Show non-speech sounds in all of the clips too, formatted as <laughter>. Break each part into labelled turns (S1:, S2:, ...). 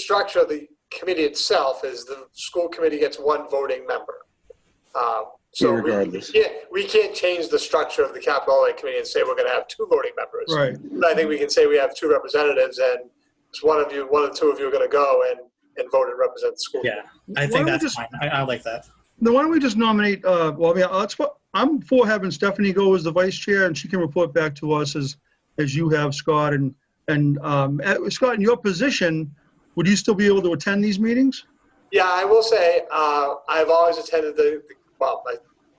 S1: structure of the committee itself is the school committee gets one voting member. Um, So we-
S2: Irregardless.
S1: Yeah, we can't change the structure of the capital outlay committee and say we're going to have two voting members.
S3: Right,
S1: But I think we can say we have two representatives and it's one of you, one of the two of you are going to go and, and vote and represent the school.
S4: Yeah, I
S3: Why don't
S4: think
S3: we
S4: that's
S3: just-
S4: fine. I, I like that.
S3: then why don't we just nominate, uh, well, yeah, that's what, I'm for having Stephanie go as the vice chair, and she can report back to us as, as you have, Scott, and, and, um, eh, Scott, in your position, would you still be able to attend these meetings?
S1: Yeah, I will say, uh, I've always attended the, the- well, I,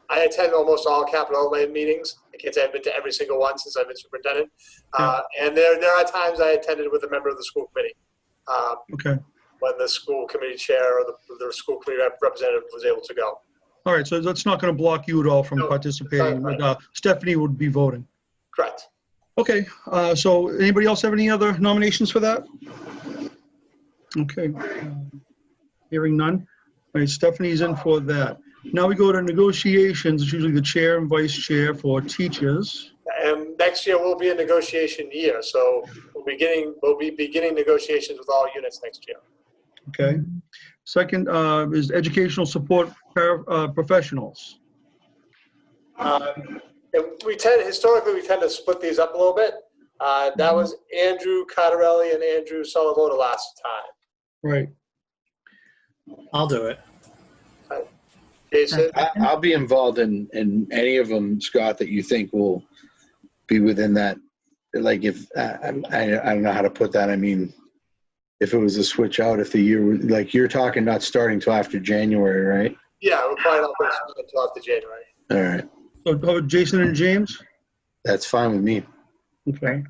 S1: I attend almost all capital outlay meetings. I can't say I've been to every single one since I've been superintendent. Uh, and there, there are times I attended with a member of the school committee. Um,
S3: Okay,
S1: when the school committee chair or the, the school committee rep- representative was able to go.
S3: all right, so that's not gonna block you at all from
S1: No,
S3: participating,
S1: sorry.
S3: but, uh, Stephanie would be voting.
S1: Correct.
S3: Okay, uh, so anybody else have any other nominations for that? Okay. uh, Hearing none. All right, Stephanie's in for that. Now we go to negotiations. It's usually the chair and vice chair for teachers.
S1: And Um, next year will be a negotiation year, so we'll be getting, we'll be beginning negotiations with all units next year.
S3: Okay. Second uh, is educational support para- uh, professionals.
S1: Um, And we tend, historically, we tend to split these up a little bit. Uh, That was Andrew Cotterelli and Andrew Sullivan last time.
S3: Right.
S4: I'll do it.
S1: Jason,
S2: I, I'll be involved in, in any of them, Scott, that you think will be within that. Like if, I, I'm- I, I don't know how to put that. I mean, if it was a switch out, if the year, was- like you're talking not starting till after January, right?
S1: yeah, we're probably not going to until after January.
S2: All right.
S3: So how about Jason and James?
S2: That's fine with me.
S3: Okay.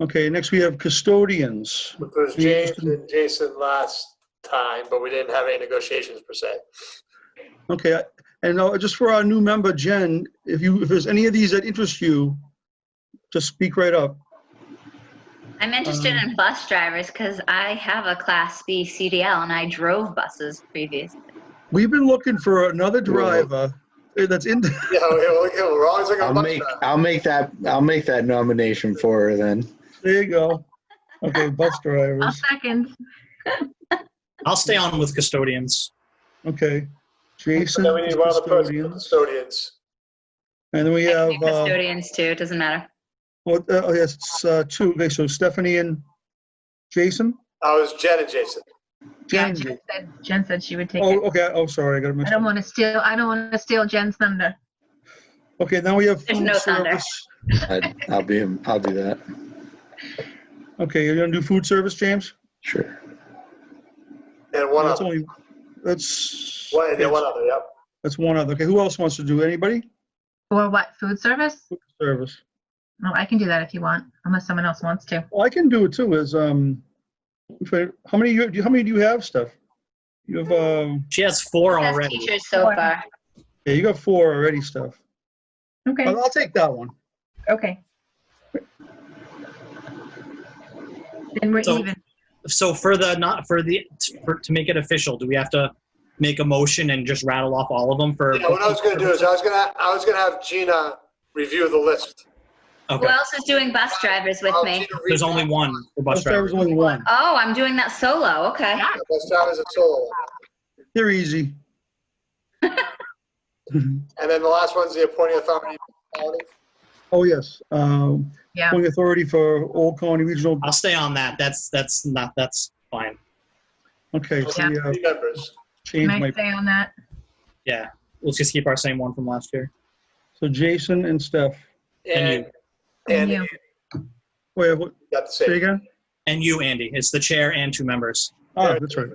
S3: Okay, next we have custodians.
S1: It was James and Jason last time, but we didn't have any negotiations per se.
S3: Okay, I- and uh, just for our new member, Jen, if you, if there's any of these that interest you, just speak right up.
S5: I'm interested in bus drivers because I have a Class B CDL and I drove buses previously.
S3: We've been looking for another
S2: Whoa.
S3: driver eh, that's in,
S1: <laughs>
S3: <laughs>
S1: Yeah, we're looking- we're always looking.
S2: I'll
S1: at
S2: make,
S1: Buckshot.
S2: I'll make that, I'll make that nomination for her then.
S3: there you go. Okay, bus drivers,
S5: second.
S4: I'll stay on with custodians.
S3: okay. Jason
S1: Then we
S3: is
S1: need one other person for
S3: custodians.
S1: custodians.
S3: And then we
S5: I
S3: have,
S5: can do
S3: uh,
S5: custodians too, it doesn't matter.
S3: what, uh, oh yes, it's uh, two, okay, so Stephanie and Jason?
S1: I was Jen and Jason.
S6: Yeah,
S3: Jen.
S6: Jen said, Jen said she would take
S3: Oh,
S6: it.
S3: okay, oh, sorry, I got to
S6: I
S3: mix
S6: don't
S3: up.
S6: want to steal, I don't want to steal Jen's thunder.
S3: Okay, now we have
S5: There's
S3: food
S5: no thunder.
S3: service.
S2: I, I'll be, I'll do that.
S3: Okay, you're gonna do food service, James?
S2: Sure.
S1: And one
S3: That's
S1: other.
S3: only- That's.
S1: One, and then one other, yep.
S3: That's one other. Okay, who else wants to do? Anybody?
S6: Or what, food service?
S3: Service.
S6: No, I can do that if you want, unless someone else wants to.
S3: Well, I can do it too. Is um, if I- how many you do? you- How many do you have, Steph? You have um.
S4: She has four
S5: Best
S4: already.
S5: teachers so
S6: Four.
S5: far.
S3: Yeah, you got four already, Steph.
S6: Okay,
S3: I'll, I'll take that one.
S6: okay. Then we're
S4: So-
S6: even.
S4: So for the not for the for, to make it official, do we have to make a motion and just rattle off all of them for?
S1: Yeah, what I was gonna do is I was gonna, I was gonna have Gina review the list.
S5: Who
S4: Okay,
S5: else is doing bus drivers with
S1: I'll
S5: me?
S1: Gina read
S4: there's
S1: the
S4: only one for bus
S3: Bus driver's
S4: drivers.
S3: only one.
S5: Oh, I'm doing that solo, okay.
S1: Bus drivers and solo.
S3: They're
S6: <laughs>
S3: easy.
S1: And then the last one's the appointing authority.
S3: oh yes. Um,
S6: Yeah.
S3: appointing authority for Old Colony Regional.
S4: I'll stay on that. That's that's not that's fine.
S3: Okay, so we have
S1: Three members.
S6: Can
S3: changed
S6: I
S3: my.
S6: stay on that?
S4: Yeah, let's just keep our same one from last year.
S3: So Jason and Steph.
S1: And,
S4: And
S1: and
S6: And you.
S1: you
S3: Wait, what,
S1: got the
S3: say
S1: same.
S3: again?
S4: And you, Andy, it's the chair and two members.
S3: Ah, that's right.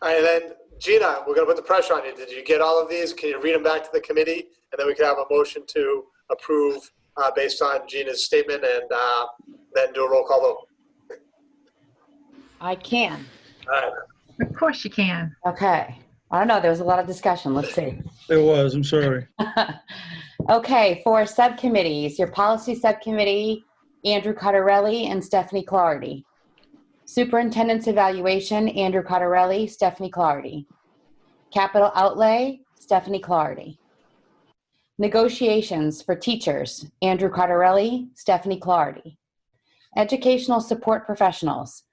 S1: All right, And then Gina, we're gonna put the pressure on you. Did you get all of these? Can you read them back to the committee? And then we can have a motion to approve, uh, based on Gina's statement and, uh, then do a roll call vote.
S7: I can.
S1: All right.
S6: Of course you can.
S7: Okay. I don't know. There was a lot of discussion. Let's see.
S3: There was. I'm sorry.
S7: <laughs> okay. For subcommittees, your policy subcommittee, Andrew Cottarelli and Stephanie Clardy. Superintendent's evaluation, Andrew Cottarelli, Stephanie Clardy. Capital outlay, Stephanie Clardy. Negotiations for teachers, Andrew Cottarelli, Stephanie Clardy. Educational support professionals,